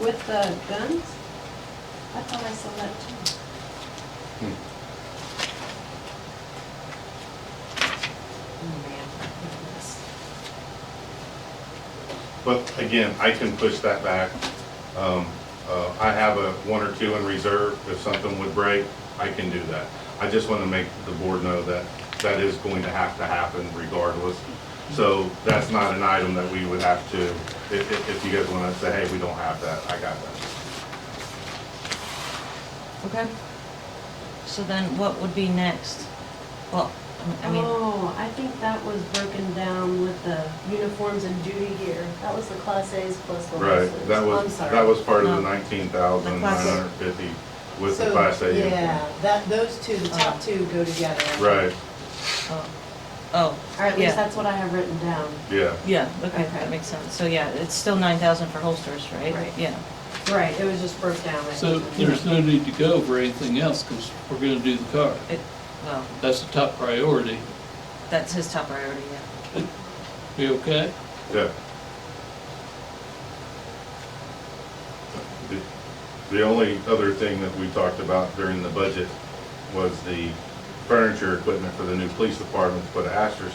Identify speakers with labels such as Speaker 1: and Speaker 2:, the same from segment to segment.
Speaker 1: With the guns? I thought I saw that too. Oh, man. look at this.
Speaker 2: But again, I can push that back. Um, uh, I have a one or two in reserve. If something would break, I can do that. I just want to make the board know that that is going to have to happen regardless. So that's not an item that we would have to, if, if if you guys want to say, hey, we don't have that, I got that.
Speaker 3: Okay. So then what would be next? Well, I mean,
Speaker 1: Oh, I think that was broken down with the uniforms and duty gear. That was the class A's plus the
Speaker 2: Right,
Speaker 1: lessons.
Speaker 2: that
Speaker 1: I'm
Speaker 2: was,
Speaker 1: sorry.
Speaker 2: that was part of the
Speaker 3: No.
Speaker 2: nineteen thousand nine hundred fifty with the
Speaker 4: So,
Speaker 2: Class A
Speaker 4: Yeah,
Speaker 2: uniform.
Speaker 4: that, those two, the top two go together.
Speaker 2: Right,
Speaker 3: oh, oh,
Speaker 1: Or at least
Speaker 3: yeah,
Speaker 1: that's what I have written down.
Speaker 2: yeah.
Speaker 3: yeah, okay,
Speaker 1: Okay.
Speaker 3: that makes sense. So yeah, it's still nine thousand for holsters, right?
Speaker 1: Right.
Speaker 3: Yeah,
Speaker 1: Right, it was just broke down. I
Speaker 5: So
Speaker 1: think.
Speaker 5: there's no need to go over anything else, because we're gonna do the car.
Speaker 3: it, well,
Speaker 5: That's the top priority.
Speaker 3: that's his top priority, yeah.
Speaker 5: We okay?
Speaker 2: Yeah. The- The only other thing that we talked about during the budget was the furniture equipment for the new police department to put asterisk.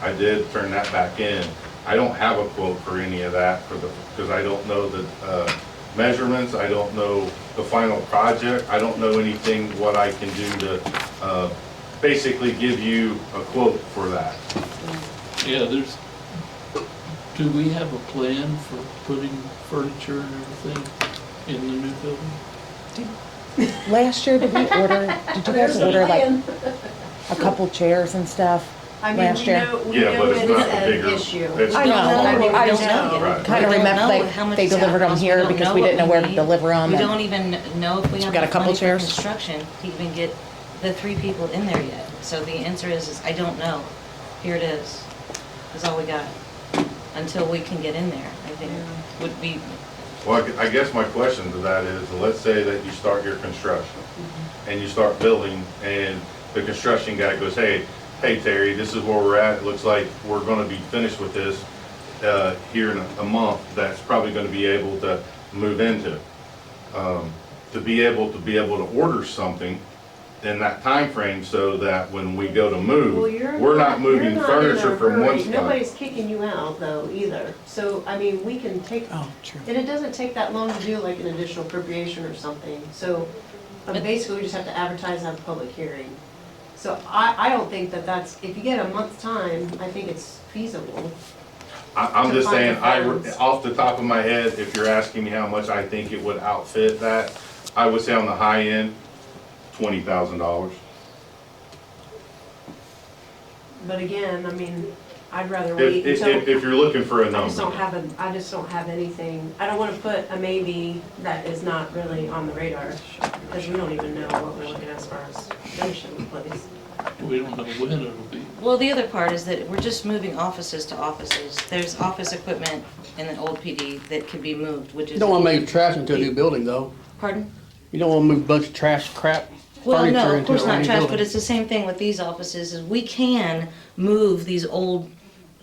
Speaker 2: I did turn that back in. I don't have a quote for any of that for the, because I don't know the uh, measurements, I don't know the final project, I don't know anything, what I can do to uh, basically give you a quote for that.
Speaker 5: Yeah, there's, do we have a plan for putting furniture and everything in the new building?
Speaker 6: Last year, did we order, did you guys
Speaker 1: There's a
Speaker 6: order like
Speaker 1: plan.
Speaker 6: a couple chairs and stuff?
Speaker 1: I mean, we
Speaker 6: last year.
Speaker 1: know, we
Speaker 2: Yeah,
Speaker 1: know
Speaker 2: but
Speaker 1: it's
Speaker 2: it's not the
Speaker 1: an
Speaker 2: bigger-
Speaker 1: issue.
Speaker 2: it's
Speaker 6: I know,
Speaker 2: I mean,
Speaker 6: I
Speaker 2: we
Speaker 6: just
Speaker 2: don't know. Right.
Speaker 6: kind of
Speaker 3: We don't know
Speaker 6: remember,
Speaker 3: how
Speaker 6: like,
Speaker 3: much
Speaker 6: they
Speaker 3: is at
Speaker 6: delivered them
Speaker 3: cost. We
Speaker 6: here
Speaker 3: don't
Speaker 6: because we
Speaker 3: what
Speaker 6: didn't know where to
Speaker 3: need.
Speaker 6: deliver them.
Speaker 3: We don't even know if we
Speaker 6: Um, So we
Speaker 3: have
Speaker 6: got a
Speaker 3: the
Speaker 6: couple
Speaker 3: money for
Speaker 6: chairs?
Speaker 3: construction to even get the three people in there yet. So the answer is, is I don't know. Here it is, is all we got, until we can get in there, I think, would be,
Speaker 2: Well, I gu- I guess my question to that is, let's say that you start your construction,
Speaker 1: Mm-hmm.
Speaker 2: and you start building, and the construction guy goes, hey, hey Terry, this is where we're at, it looks like we're gonna be finished with this, uh, here in a- a month, that's probably gonna be able to move into. Um, To be able, to be able to order something in that time frame, so that when we go to
Speaker 1: Well,
Speaker 2: move,
Speaker 1: you're
Speaker 2: we're not
Speaker 1: you're
Speaker 2: moving
Speaker 1: not in a
Speaker 2: furniture from
Speaker 1: hurry.
Speaker 2: one spot.
Speaker 1: Nobody's kicking you out though either. So, I mean, we can take,
Speaker 6: Oh, true.
Speaker 1: and it doesn't take that long to do like an additional appropriation or something. So um,
Speaker 3: But-
Speaker 1: basically, we just have to advertise and have a public hearing. So I, I don't think that that's, if you get a month's time, I think it's feasible.
Speaker 2: I, I'm
Speaker 1: to
Speaker 2: just
Speaker 1: find
Speaker 2: saying,
Speaker 1: the
Speaker 2: I,
Speaker 1: funds.
Speaker 2: off the top of my head, if you're asking me how much I think it would outfit that, I would say on the high end, twenty thousand dollars.
Speaker 1: But again, I mean, I'd rather
Speaker 2: If,
Speaker 1: wait
Speaker 2: if,
Speaker 1: until.
Speaker 2: if- if you're looking for a
Speaker 1: I just don't
Speaker 2: number.
Speaker 1: have a, I just don't have anything, I don't wanna put a maybe that is not really on the radar, because we don't even know what we're looking at as far as finishing the place.
Speaker 5: We don't know when it'll be.
Speaker 3: well, the other part is that we're just moving offices to offices. There's office equipment in the old PD that could be moved, which is.
Speaker 7: You don't want to move trash into a new building, though.
Speaker 3: Pardon?
Speaker 7: You don't want to move a bunch of trash crap
Speaker 3: Well,
Speaker 7: furniture
Speaker 3: no, of
Speaker 7: into a
Speaker 3: course
Speaker 7: brand
Speaker 3: not
Speaker 7: new
Speaker 3: trash,
Speaker 7: building.
Speaker 3: but it's the same thing with these offices, is we can move these old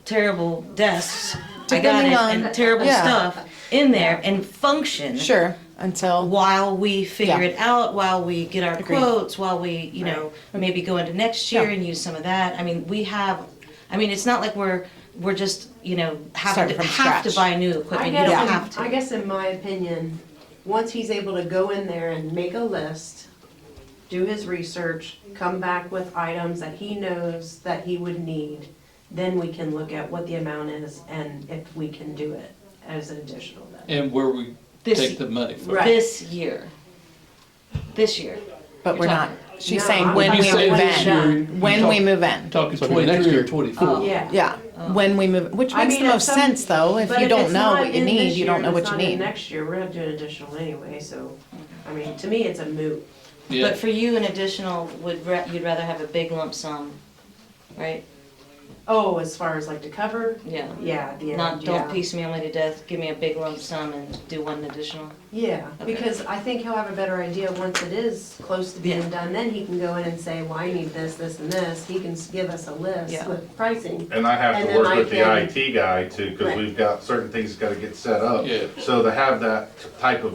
Speaker 3: terrible desks, I got it,
Speaker 6: Depending on-
Speaker 3: and terrible
Speaker 6: yeah.
Speaker 3: stuff in there and function.
Speaker 6: Sure, until,
Speaker 3: While we figure
Speaker 6: Yeah.
Speaker 3: it out, while we get our
Speaker 6: Agreed.
Speaker 3: quotes, while we, you know, maybe go into next year
Speaker 6: Yeah.
Speaker 3: and use some of that. I mean, we have, I mean, it's not like we're, we're just, you know, have
Speaker 6: Starting
Speaker 3: to,
Speaker 6: from
Speaker 3: have to
Speaker 6: scratch.
Speaker 3: buy new
Speaker 1: I
Speaker 3: equipment, you don't have
Speaker 1: guess,
Speaker 3: to.
Speaker 1: in- I guess in my opinion, once he's able to go in there and make a list, do his research, come back with items that he knows that he would need, then we can look at what the amount is and if we can do it as an additional then.
Speaker 5: And where we
Speaker 3: This-
Speaker 5: take the money from.
Speaker 1: Right.
Speaker 3: This year. This year.
Speaker 6: but we're not, she's saying
Speaker 1: No,
Speaker 6: when
Speaker 1: I'm
Speaker 6: we
Speaker 5: You say
Speaker 1: saying
Speaker 6: move
Speaker 5: this
Speaker 6: in.
Speaker 5: year, you
Speaker 6: When
Speaker 5: talk-
Speaker 6: we move in.
Speaker 5: Talking
Speaker 7: So it'll be next
Speaker 5: twenty-three or
Speaker 7: year.
Speaker 5: twenty-four.
Speaker 1: Yeah.
Speaker 6: Yeah, when we move, which
Speaker 1: I
Speaker 6: makes
Speaker 1: mean,
Speaker 6: the
Speaker 1: if
Speaker 6: most
Speaker 1: some-
Speaker 6: sense, though. If
Speaker 1: But
Speaker 6: you don't
Speaker 1: it's
Speaker 6: know
Speaker 1: not
Speaker 6: what you
Speaker 1: in
Speaker 6: need,
Speaker 1: this
Speaker 6: you
Speaker 1: year,
Speaker 6: don't
Speaker 1: it's
Speaker 6: know what you
Speaker 1: not in
Speaker 6: need.
Speaker 1: Next year, we're gonna do an additional anyway, so, I mean, to me, it's a moot.
Speaker 5: Yeah,
Speaker 3: But for you, an additional would, ra- you'd rather have a big lump sum, right?
Speaker 1: Oh, as far as like to cover?
Speaker 3: Yeah.
Speaker 1: Yeah, at the end,
Speaker 3: Not, don't
Speaker 1: yeah.
Speaker 3: piecemeal me to death, give me a big lump sum and do one additional.
Speaker 1: Yeah,
Speaker 3: Okay.
Speaker 1: because I think he'll have a better idea once it is close to being
Speaker 3: Yeah.
Speaker 1: done, then he can go in and say, well, I need this, this, and this. He can s- give us a list
Speaker 3: Yeah.
Speaker 1: with pricing.
Speaker 2: And I have
Speaker 1: And
Speaker 2: to
Speaker 1: then
Speaker 2: work
Speaker 1: I
Speaker 2: with the
Speaker 1: can-
Speaker 2: IT guy too, because
Speaker 1: Right.
Speaker 2: we've got certain things gotta get set up.
Speaker 5: Yeah.
Speaker 2: So to have that type of